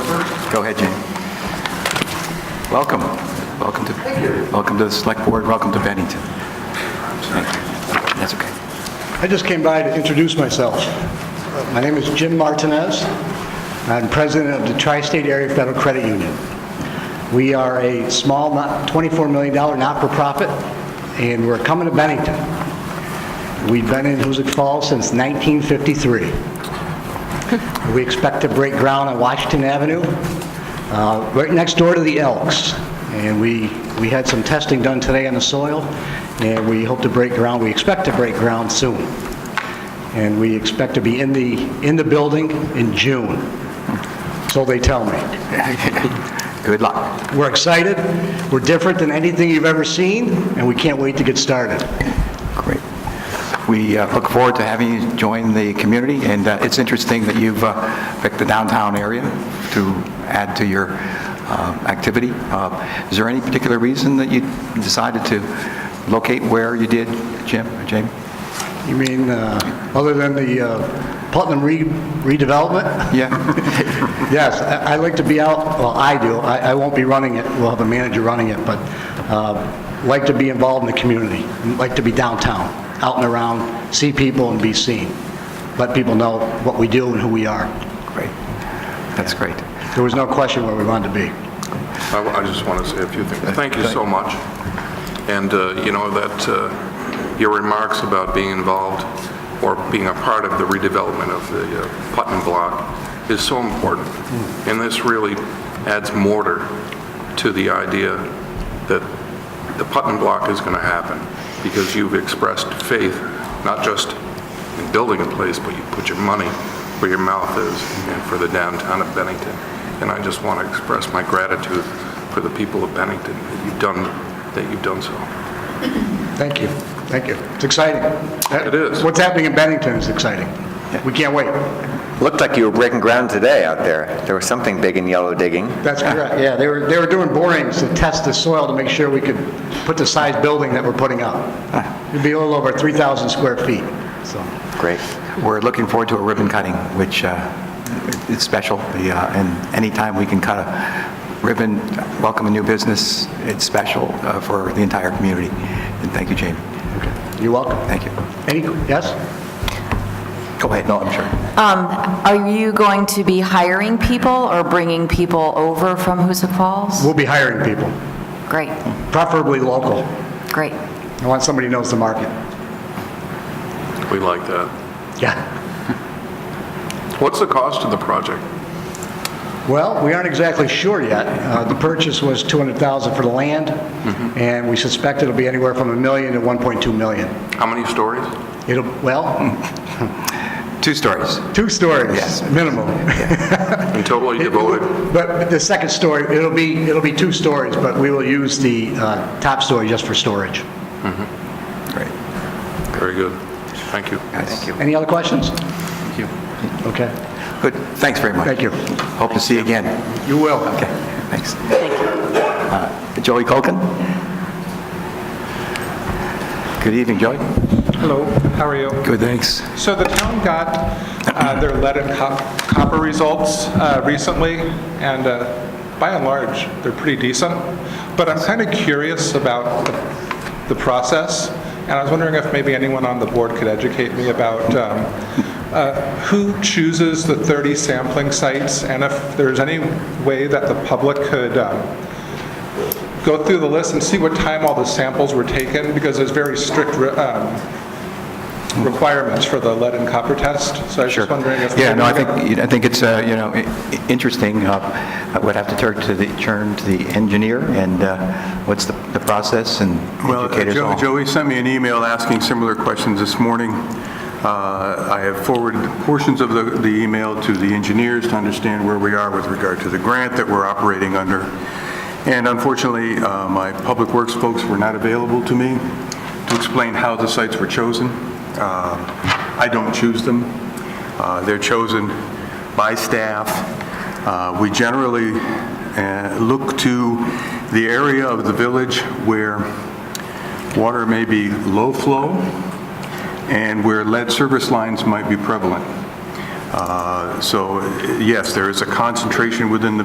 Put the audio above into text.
Go ahead, Jane. Welcome. Welcome to, welcome to the Select Board, welcome to Bennington. Thank you. That's okay. I just came by to introduce myself. Uh, My name is Jim Martinez. I'm president of the Tri-State Area Federal Credit Union. We are a small, not- $24 million not-for-profit, and we're coming to Bennington. We've been in Hoosick Falls since 1953. We expect to break ground on Washington Avenue, uh, right next door to the Elks. And we, we had some testing done today on the soil, and we hope to break ground, we expect to break ground soon. And we expect to be in the, in the building in June, so they tell me. Good luck. We're excited, we're different than anything you've ever seen, and we can't wait to get started. Great. We uh, look forward to having you join the community, and uh, it's interesting that you've uh, picked the downtown area to add to your uh, activity. Uh, Is there any particular reason that you decided to locate where you did, Jim, Jamie? You mean, uh, other than the uh, Putnam re- redevelopment? Yeah? Yes, I I like to be out, well, I do, I I won't be running it, we'll have a manager running it, but uh, like to be involved in the community, like to be downtown, out and around, see people and be seen, let people know what we do and who we are. Great. That's great. There was no question where we wanted to be. I I just want to say a few things. Thank you so much. And, uh, you know, that, uh, your remarks about being involved or being a part of the redevelopment of the uh, Putnam Block is so important. And this really adds mortar to the idea that the Putnam Block is going to happen because you've expressed faith, not just in building a place, but you put your money where your mouth is and for the downtown of Bennington. And I just want to express my gratitude for the people of Bennington that you've done, that you've done so. Thank you, thank you. It's exciting. Uh, It is. What's happening in Bennington is exciting. We can't wait. Looked like you were breaking ground today out there. There was something big and yellow digging. That's correct, yeah, they were, they were doing borings to test the soil to make sure we could put the size building that we're putting up. Ah. It'd be a little over 3,000 square feet, so. Great. We're looking forward to a ribbon cutting, which uh, is special, The, uh, and anytime we can cut a ribbon, welcome a new business, it's special uh, for the entire community. And thank you, Jamie. You're welcome. Thank you. Any, yes? Go ahead, no, I'm sure. Um, Are you going to be hiring people or bringing people over from Hoosick Falls? We'll be hiring people, Great, preferably local. great. I want somebody who knows the market. We like that. Yeah. What's the cost of the project? Well, we aren't exactly sure yet. Uh, The purchase was 200,000 for the land, and we suspect it'll be anywhere from a million to 1.2 million. How many stories? It'll, well, Two stories. two stories, Yes. minimum. And totally devoted? But the second story, it'll be, it'll be two stories, but we will use the uh, top story just for storage. Great. Very good. Thank you. Thank you. Any other questions? Okay, Good, thanks very much. Thank you. Hope to see you again. you will. Okay, thanks. Thank you. Joey Colkin? Good evening, Joey. Hello, how are you? Good, thanks. So the town got uh, their lead and cop- copper results uh, recently, and uh, by and large, they're pretty decent. But I'm kind of curious about the- the process, and I was wondering if maybe anyone on the board could educate me about um, uh, who chooses the 30 sampling sites, and if there's any way that the public could um, go through the list and see what time all the samples were taken, because there's very strict um, requirements for the lead and copper test. So I was Sure. just wondering if... Yeah, no, I think, you know, I think it's, uh, you know, i- i- interesting. Uh, I would have to turn to the, turn to the engineer and uh, what's the the process and Well, uh, educators Jo- all. Joey sent me an email asking similar questions this morning. Uh, I have forwarded portions of the the email to the engineers to understand where we are with regard to the grant that we're operating under. And unfortunately, uh, my public works folks were not available to me to explain how the sites were chosen. Uh, I don't choose them. Uh, They're chosen by staff. Uh, We generally uh, look to the area of the village where water may be low flow, and where lead service lines might be prevalent. Uh, So yes, there is a concentration within the